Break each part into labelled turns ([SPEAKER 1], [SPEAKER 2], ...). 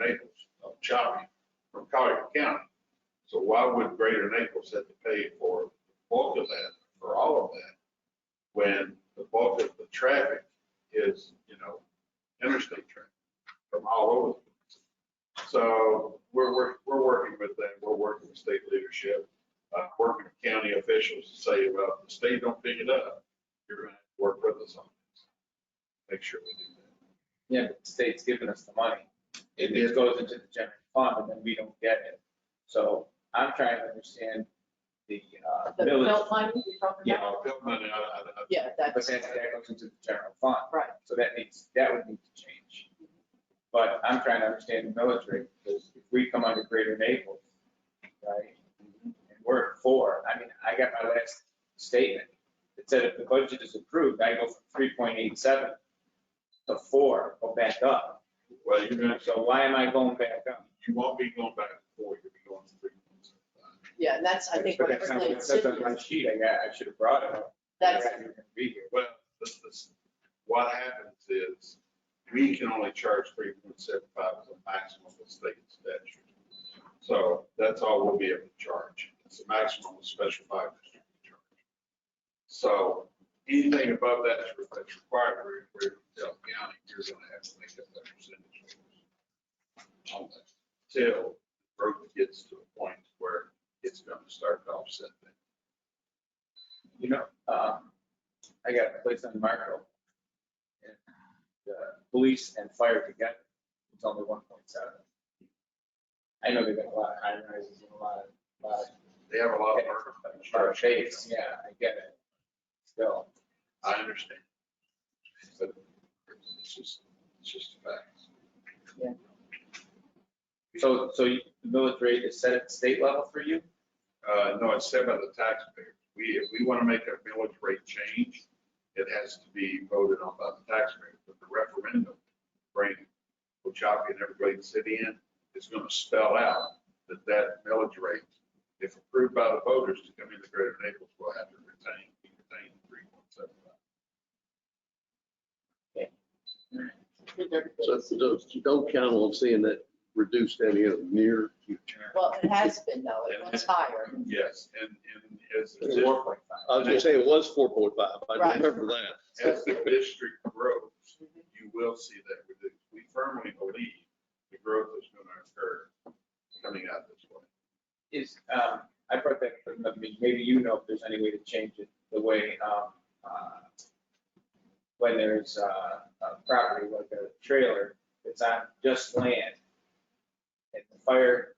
[SPEAKER 1] Naples of Chavi from Collier County. So why would Greater Naples have to pay for the bulk of that, for all of that, when the bulk of the traffic is, you know, interstate traffic from all over? So we're, we're, we're working with them, we're working with state leadership, uh, working with county officials to say, well, if the state don't pick it up, you're gonna have to work with us on this. Make sure we do that.
[SPEAKER 2] Yeah, but the state's giving us the money. It just goes into the general fund and then we don't get it. So I'm trying to understand the uh,
[SPEAKER 3] The
[SPEAKER 2] village,
[SPEAKER 3] belt money you're talking
[SPEAKER 2] Yeah.
[SPEAKER 3] about?
[SPEAKER 1] Uh, Bill Money, I- I- I-
[SPEAKER 3] Yeah,
[SPEAKER 2] but
[SPEAKER 3] that's
[SPEAKER 2] then that goes into the general fund.
[SPEAKER 3] right.
[SPEAKER 2] So that needs, that would need to change. But I'm trying to understand the village rate because if we come under Greater Naples, right? And we're at four, I mean, I got my last statement. It said if the budget is approved, I go from three point eight seven to four, go back up.
[SPEAKER 1] well, you're gonna,
[SPEAKER 2] So why am I going back up?
[SPEAKER 1] you won't be going back and forth, you'll be going three months at a time.
[SPEAKER 3] Yeah, and that's, I think, what
[SPEAKER 2] That's
[SPEAKER 3] we're
[SPEAKER 2] not-
[SPEAKER 3] really
[SPEAKER 2] that's on my
[SPEAKER 3] considering.
[SPEAKER 2] sheet, I got, I should have brought it up.
[SPEAKER 3] That's,
[SPEAKER 2] Otherwise, you're gonna Be here.
[SPEAKER 1] Well, this, this, what happens is, we can only charge three point seven five as a maximum of state statute. So that's all we'll be able to charge. It's the maximum of special five district charge. So anything above that is that's required, we're, we're tell county, you're gonna have to make up that percentage. on that, Till growth gets to a point where it's gonna start to offset that.
[SPEAKER 2] You know, um, I got a place on Marco. and The police and fire together, it's only one point seven. I know they've got a lot of high rises and a lot of, lot of-
[SPEAKER 1] They have a lot of.
[SPEAKER 2] a lot of shades, yeah, I get it. Still,
[SPEAKER 1] I understand. But it's just, it's just a fact.
[SPEAKER 2] so, so you- the millage rate is set at state level for you?
[SPEAKER 1] Uh, no, it's said by the taxpayers. We, if we want to make a millage rate change, it has to be voted on by the taxpayers. But the referendum, bringing Ochapi and everybody in the city in, is going to spell out that that millage rate, if approved by the voters to come into Greater Naples, will have to retain, retain three point seven five.
[SPEAKER 4] So that's- those- you don't count on seeing that reduced any of the near future.
[SPEAKER 3] well, it has been though, it was higher.
[SPEAKER 1] Yes, and, and as. the
[SPEAKER 2] It's
[SPEAKER 1] district-
[SPEAKER 2] four point five.
[SPEAKER 4] I was gonna say it was four point five, I
[SPEAKER 3] Right.
[SPEAKER 4] remember that.
[SPEAKER 1] as the district grows, you will see that reduced. We firmly believe the growth is going to occur coming out this way.
[SPEAKER 2] is, um, I brought that, up, I mean, maybe you know if there's any way to change it the way, um, uh, when there's uh, a property like a trailer that's on just land and the fire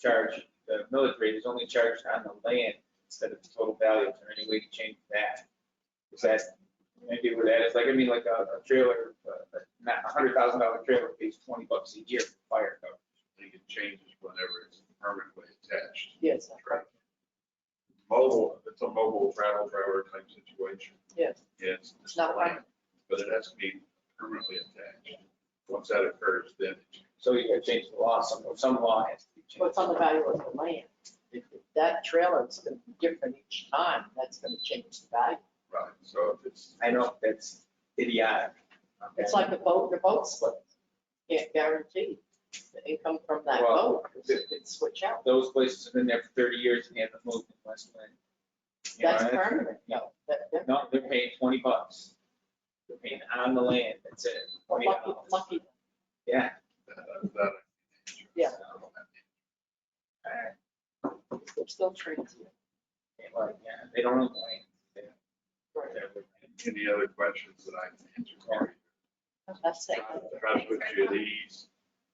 [SPEAKER 2] charge, the millage rate is only charged on the land instead of the total value. Is there any way to change that? Is that, maybe where that is, like, I mean, like a a trailer, uh, not a hundred thousand dollar trailer pays twenty bucks a year for fire coverage.
[SPEAKER 1] I think it changes whenever it's permanently attached.
[SPEAKER 3] Yes,
[SPEAKER 1] Mobile, it's a mobile travel trailer type situation.
[SPEAKER 3] yes.
[SPEAKER 1] Yes.
[SPEAKER 3] It's not right.
[SPEAKER 1] But it has to be permanently attached. Once that occurs, then
[SPEAKER 2] So you gotta change the law, some, some law has to be changed.
[SPEAKER 3] What's on the value of the land? If that trailer is going to be different each time, that's going to change the value.
[SPEAKER 1] right. So if it's,
[SPEAKER 2] I know, that's idiotic.
[SPEAKER 3] It's like a boat, the boat slips. Can't guarantee the income from that
[SPEAKER 2] Well,
[SPEAKER 3] boat. It could switch out.
[SPEAKER 2] Those places have been there for thirty years and they haven't moved in West Lynn. You know,
[SPEAKER 3] That's permanent, no. that- that-
[SPEAKER 2] No, they're paying twenty bucks. They're paying on the land, that's it, twenty
[SPEAKER 3] Lucky,
[SPEAKER 2] dollars.
[SPEAKER 3] lucky.
[SPEAKER 2] Yeah.
[SPEAKER 1] that, that.
[SPEAKER 3] Yeah.
[SPEAKER 2] So, I-
[SPEAKER 3] They're still transient.
[SPEAKER 2] like, yeah, They don't own the land. They don't-
[SPEAKER 3] Right.
[SPEAKER 1] Any other questions that I can answer? for
[SPEAKER 3] That's
[SPEAKER 1] you?
[SPEAKER 3] it.
[SPEAKER 1] Try to put you at ease.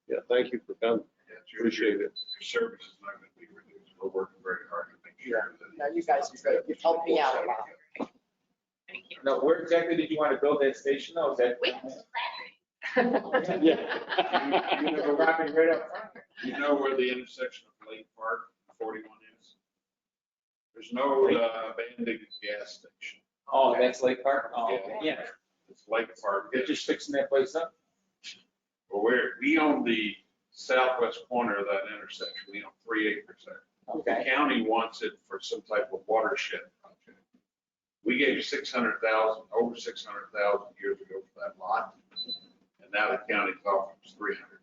[SPEAKER 4] Yeah, thank you for coming,
[SPEAKER 1] Yeah, it's your-
[SPEAKER 4] appreciate it.
[SPEAKER 1] Your service is not going to be reduced. We're working very hard to make sure that.
[SPEAKER 3] No, you guys are great. You've helped me out a lot.
[SPEAKER 5] Thank you.
[SPEAKER 2] Now, where exactly did you want to build that station though? Is that?
[SPEAKER 5] We have some battery.
[SPEAKER 4] Yeah.
[SPEAKER 2] You know, Robbie, right up front.
[SPEAKER 1] You know where the intersection of Lake Park and 41 is? There's no uh, abandoned gas station.
[SPEAKER 2] Oh, that's Lake Park? Oh,
[SPEAKER 1] Yeah.
[SPEAKER 2] yeah.
[SPEAKER 1] It's Lake Park.
[SPEAKER 2] They're just fixing that place up.
[SPEAKER 1] Well, we're, we own the southwest corner of that intersection. We own three acres there. The county wants it for some type of watershed project. We gave 600,000, over 600,000 years ago for that lot. And now the county's offering us 300,000.